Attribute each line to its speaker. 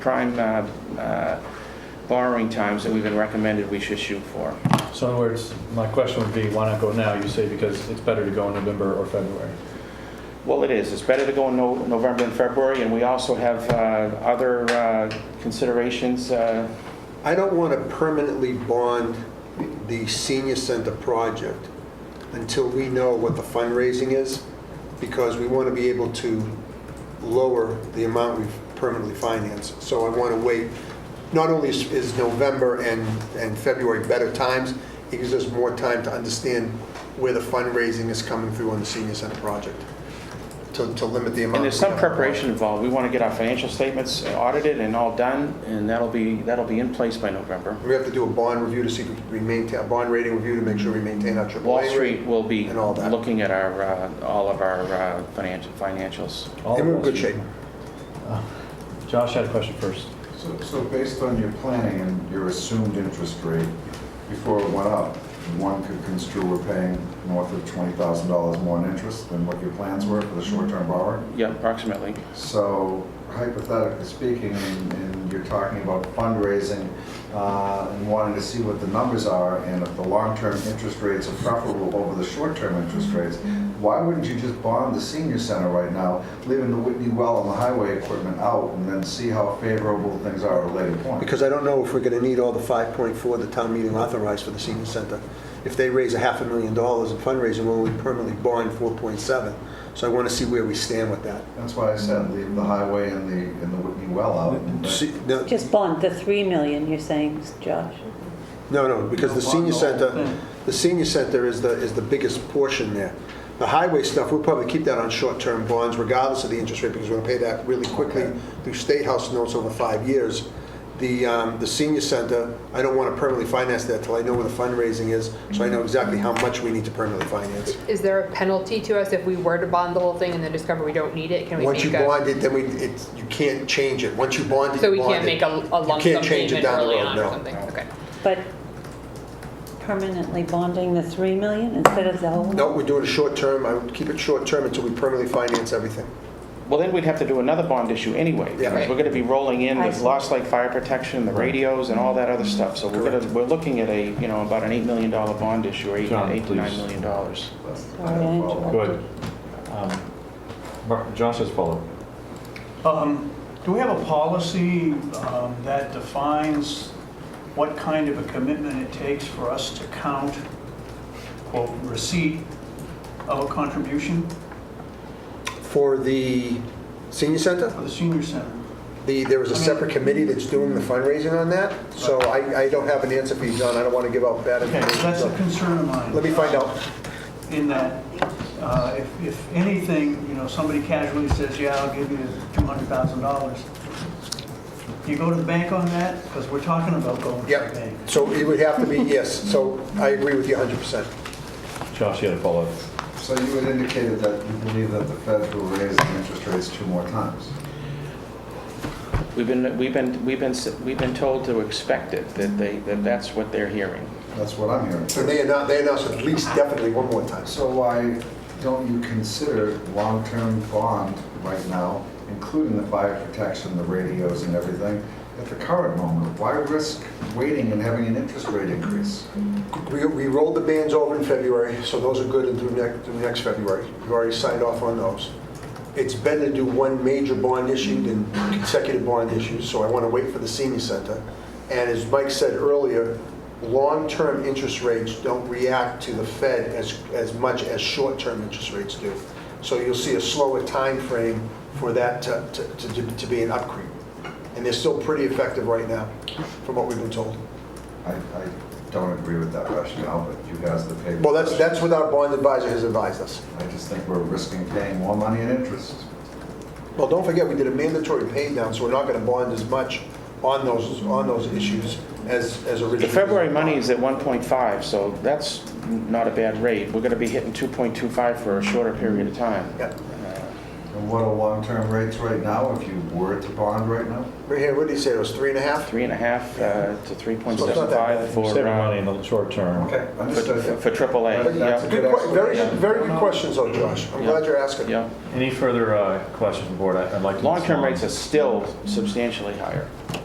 Speaker 1: prime uh, uh, borrowing times that we've been recommended we should shoot for.
Speaker 2: So in other words, my question would be, why not go now? You say because it's better to go in November or February.
Speaker 1: Well, it is, it's better to go in No- November and February, and we also have uh, other uh, considerations. uh,
Speaker 3: I don't want to permanently bond the senior center project until we know what the fundraising is, because we want to be able to lower the amount we've permanently financed. So I want to wait, not only is is November and, and February better times, it gives us more time to understand where the fundraising is coming through on the senior center project, to, to limit the amount.
Speaker 1: And there's some
Speaker 3: we have.
Speaker 1: preparation involved, we want to get our financial statements audited and all done, and that'll be, that'll be in place by November.
Speaker 3: We have to do a bond review to see, if we maintain, a bond rating review to make sure we maintain our AAA.
Speaker 1: Wall
Speaker 3: rating.
Speaker 1: Street will be
Speaker 3: And all that.
Speaker 1: looking at our, uh, all of our uh, financial financials.
Speaker 2: All
Speaker 3: And we're in
Speaker 2: of
Speaker 3: good
Speaker 2: those-
Speaker 3: shape.
Speaker 2: Josh had a question first.
Speaker 4: So, so based on your planning and your assumed interest rate, before it went up, one could construe we're paying north of twenty thousand dollars more in interest than what your plans were for the short-term borrowing.
Speaker 1: Yeah, approximately.
Speaker 4: So hypothetically speaking, and and you're talking about fundraising, uh, and wanting to see what the numbers are, and if the long-term interest rates are preferable over the short-term interest rates, why wouldn't you just bond the senior center right now, leaving the Whitney well and the highway equipment out, and then see how favorable things are at a later point?
Speaker 3: Because I don't know if we're going to need all the 5.4 the town meeting authorized for the senior center. If they raise a half a million dollars in fundraising, we'll only permanently bond 4.7. So I want to see where we stand with that.
Speaker 4: That's why I said leave the highway and the, and the Whitney well out. and-
Speaker 3: See- No,
Speaker 5: Just bond the 3 million, you're saying, Josh?
Speaker 3: no, no, because the senior center,
Speaker 6: Hmm.
Speaker 3: the senior center is the, is the biggest portion there. The highway stuff, we'll probably keep that on short-term bonds regardless of the interest rate because we're going to pay that really quickly through State House notes over five years. The, um, the senior center, I don't want to permanently finance that till I know where the fundraising is, so I know exactly how much we need to permanently finance.
Speaker 6: Is there a penalty to us if we were to bond the whole thing and then discover we don't need it? Can we
Speaker 3: Once you
Speaker 6: make a,
Speaker 3: bond it, then we, it's, you can't change it. Once you bond it,
Speaker 6: so
Speaker 3: you
Speaker 6: we
Speaker 3: bond
Speaker 6: can't
Speaker 3: it.
Speaker 6: make a a lump
Speaker 3: can't
Speaker 6: sum
Speaker 3: change it
Speaker 6: payment
Speaker 3: down the
Speaker 6: early
Speaker 3: road,
Speaker 6: on or
Speaker 3: no.
Speaker 6: something? Okay.
Speaker 5: But permanently bonding the 3 million instead of the whole?
Speaker 3: No, we're doing a short term, I would keep it short term until we permanently finance everything.
Speaker 1: Well, then we'd have to do another bond issue anyway.
Speaker 3: Yeah.
Speaker 1: because We're going to be rolling in
Speaker 5: I
Speaker 1: with
Speaker 5: see.
Speaker 1: Lost Lake Fire Protection, the radios and all that other stuff. So we're going to, we're looking at a, you know, about an $8 million bond issue, or eight
Speaker 2: John,
Speaker 1: eight to $9
Speaker 2: please.
Speaker 1: million. dollars.
Speaker 4: But-
Speaker 5: Sorry, Angela.
Speaker 2: Go ahead. Um, Mar- Josh has followed.
Speaker 7: Um, Do we have a policy um, that defines what kind of a commitment it takes for us to count, quote, receipt of a contribution
Speaker 3: For the senior center,
Speaker 7: for the senior center?
Speaker 3: the, there was a separate committee that's doing the fundraising on that, so I, I don't have an answer for you, John, I don't want to give out bad
Speaker 7: Okay,
Speaker 3: information.
Speaker 7: so that's a
Speaker 3: so
Speaker 7: concern of mine.
Speaker 3: Let me find out.
Speaker 7: In that, uh, if if anything, you know, somebody casually says, yeah, I'll give you $200,000, you go to the bank on that? Because we're talking about going to the
Speaker 3: Yep,
Speaker 7: bank.
Speaker 3: so it would have to be, yes, so I agree with you 100%.
Speaker 2: Josh, you had a follow-up.
Speaker 4: So you had indicated that you believe that the Fed will raise the interest rates two more times.
Speaker 1: We've been, we've been, we've been, we've been told to expect it, that they, that that's what they're hearing.
Speaker 4: That's what I'm hearing.
Speaker 3: So they announced, they announced at least definitely one more time.
Speaker 4: So why don't you consider long-term bond right now, including the fire protection, the radios and everything, at the current moment? Why risk waiting and having an interest rate increase?
Speaker 3: We, we rolled the bands over in February, so those are good until next, through next February. We've already signed off on those. It's better to do one major bond issue than consecutive bond issues, so I want to wait for the senior center. And as Mike said earlier, long-term interest rates don't react to the Fed as, as much as short-term interest rates do. So you'll see a slower time frame for that to, to- to, to be an upcreep. And they're still pretty effective right now, from what we've been told.
Speaker 4: I, I don't agree with that rationale, but you guys, the paper.
Speaker 3: Well, that's, that's what our bond advisor has advised us.
Speaker 4: I just think we're risking paying more money in interest.
Speaker 3: Well, don't forget, we did a mandatory pay down, so we're not going to bond as much on those, on those issues as, as originally.
Speaker 1: The February money is at 1.5, so that's not a bad rate. We're going to be hitting 2.25 for a shorter period of time.
Speaker 3: Yeah.
Speaker 4: And And what are long-term rates right now if you were to bond right now?
Speaker 3: Right here, what did he say, it was three and a half?
Speaker 1: Three and a half uh, to
Speaker 3: So it's not that
Speaker 1: 3.75
Speaker 3: bad.
Speaker 2: We're
Speaker 1: for,
Speaker 2: saving money
Speaker 1: uh,
Speaker 2: in the short term.
Speaker 4: Okay,
Speaker 1: for
Speaker 4: understood.
Speaker 1: for AAA.
Speaker 4: But that's
Speaker 1: Yep,
Speaker 3: Good que- Very, good- very
Speaker 4: No,
Speaker 3: good
Speaker 4: no.
Speaker 3: questions though, Josh. I'm
Speaker 1: Yeah.
Speaker 3: glad you're asking.
Speaker 1: yep.
Speaker 2: Any further uh, questions from the board? I- I'd like to.
Speaker 1: Long-term rates are still substantially higher.